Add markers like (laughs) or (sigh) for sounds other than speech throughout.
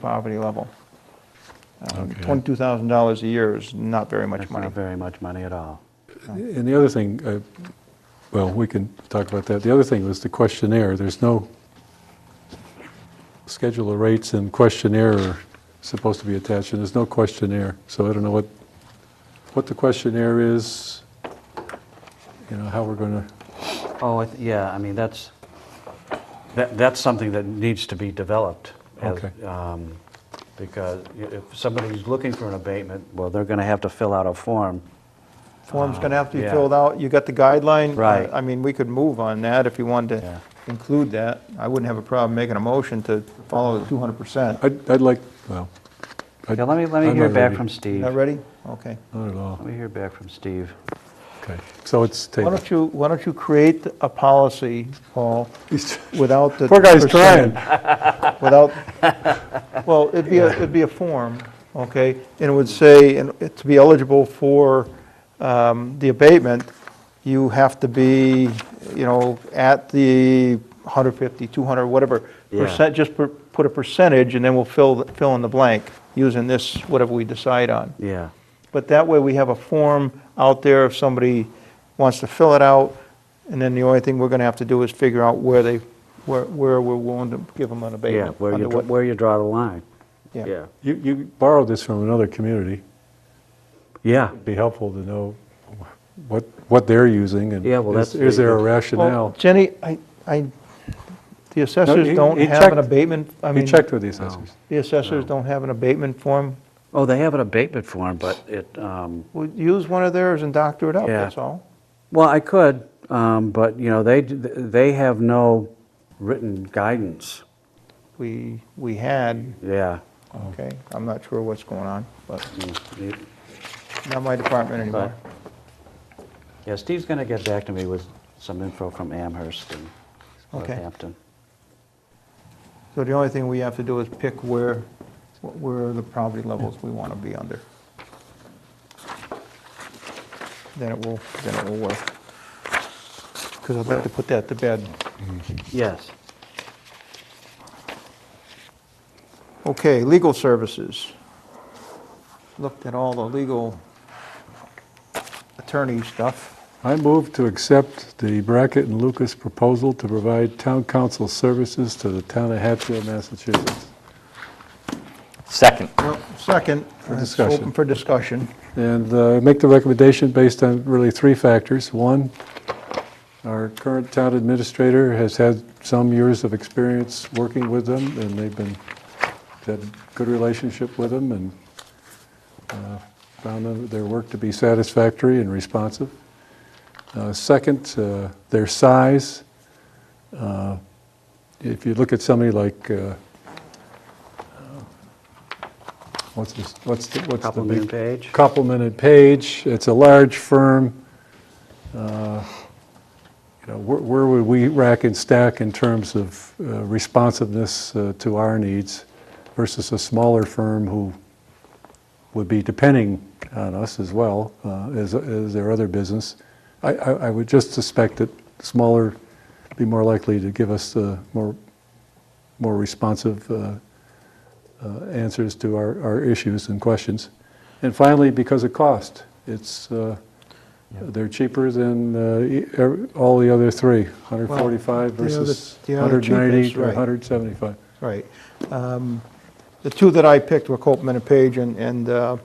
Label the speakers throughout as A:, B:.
A: poverty level. Um,
B: Okay.
A: $22,000 a year is not very much
C: That's
A: money.
C: not very much money at all.
B: And the other thing, uh, well, we can talk about that. The other thing was the questionnaire. There's no schedule of rates and questionnaire are supposed to be attached, and there's no questionnaire. So I don't know what, what the questionnaire is, you know, how we're going to,
C: Oh, I th- yeah, I mean, that's, that, that's something that needs to be developed. as-
B: Okay.
C: um, Because i- if somebody's looking for an abatement, well, they're going to have to fill out a form.
A: Form's going to have to be
C: Yeah.
A: filled out, you got the guideline.
C: Right.
A: I mean, we could move on that if you wanted
C: Yeah.
A: to include that. I wouldn't have a problem making a motion to follow the 200%.
B: I'd, I'd like, well. I'd-
C: Yeah, let me, let me
B: I'm
C: hear
B: not
C: back
B: ready.
C: from Steve.
A: Not
C: Let
A: ready? Okay.
B: Not at all.
C: me hear back from Steve.
B: Okay, so it's
A: Why
B: tabled.
A: don't you, why don't you create a policy, Paul,
B: (laughs)
A: without the.
B: Poor guy's
A: percentage,
B: trying.
A: Without, well, it'd be, a it'd be a form, okay? And it would say, and it- to be eligible for um, the abatement, you have to be, you know, at the 150, 200, whatever
C: Yeah.
A: percent, just per- put a percentage, and then we'll fill, fill in the blank, using this, whatever we decide on.
C: Yeah,
A: But that way, we have a form out there if somebody wants to fill it out, and then the only thing we're gonna have to do is figure out where they, where, where we're willing to give them an
C: yeah,
A: abatement.
C: where you,
A: under
C: dr-
A: what-
C: where you draw the line.
A: Yeah,
B: You, you borrowed this from another community.
C: Yeah,
B: It'd be helpful to know what, what they're using and
C: Yeah, well,
B: is
C: that's
B: is there a
C: very
A: Well,
B: rationale?
A: Jenny, I, I, the assessors
B: he-
A: don't
B: he
A: have an
B: checked-
A: abatement, I
B: We
A: mean,
B: checked with the assessors.
A: the assessors don't have an abatement form.
C: oh, they have an abatement form, but it, um,
A: Well, use one of theirs and doctor it up,
C: Yeah.
A: that's all.
C: Well, I could, um, but, you know, they, d- they have no written guidance.
A: We, we had,
C: Yeah.
B: Oh.
A: okay, I'm not sure what's going on, but
C: Mm, it-
A: not my department anymore.
C: Yeah, Steve's going to get back to me with some info from Amherst and
A: Okay.
C: Southampton.
A: So the only thing we have to do is pick where, where the poverty levels we want to be under. Then it will, then it will work. Because I'd like to put that to bed.
C: Yes.
A: Okay, legal services. Looked at all the legal attorney stuff.
B: I move to accept the Brackett and Lucas proposal to provide town council services to the town of Hatfield, Massachusetts.
D: Second.
A: Well, second, it's open
B: discussion.
A: for discussion.
B: And uh, make the recommendation based on really three factors. One, our current town administrator has had some years of experience working with them, and they've been, had a good relationship with them, and uh, found them- their work to be satisfactory and responsive. Uh, Second, uh, their size. Uh, If you look at somebody like, uh, uh, what's this, what's the, what's the
C: Compliment
B: big?
C: page.
B: Copeland and Page. It's a large firm. Uh, You know, where- where would we rack and stack in terms of uh, responsiveness uh, to our needs versus a smaller firm who would be depending on us as well uh, as as their other business? I- I I would just suspect that smaller be more likely to give us uh, more more responsive uh, uh, answers to our, our issues and questions. And finally, because of cost, it's, uh, they're cheaper than uh, e- er- all the other three, 145
A: Well, the other-
B: versus
A: the other cheapest,
B: 190 or
A: right.
B: 175.
A: Right. Um, The two that I picked were Copman and Page and, and uh,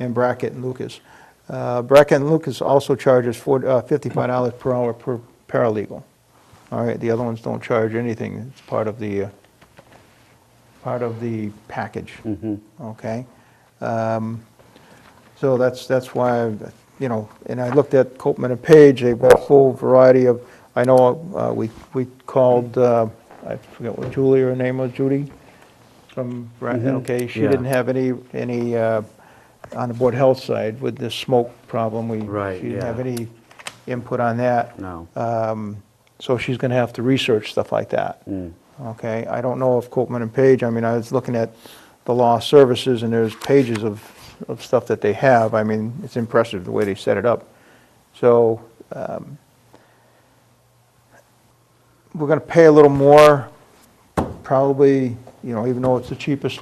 A: and Brackett and Lucas. Uh, Brackett and Lucas also charges four- uh, $55 per hour per paralegal. All right, the other ones don't charge anything, it's part of the, uh, part of the package,
C: Mhm.
A: okay? Um, So that's, that's why, you know, and I looked at Copman and Page, they've got a whole variety of, I know, uh, we, we called, uh, I forget what Julie, her name was, Judy? From, Bra- okay, she
C: Mm-hmm. yeah.
A: didn't have any, any, uh, on the Board Health side with this smoke problem, we.
C: Right,
A: She didn't have
C: yeah.
A: any input on that.
C: No.
A: Um, So she's going to have to research stuff like that.
C: Mm.
A: Okay, I don't know if Copman and Page, I mean, I was looking at the law services, and there's pages of, of stuff that they have. I mean, it's impressive the way they set it up. So, um, we're going to pay a little more, probably you know, even though it's the cheapest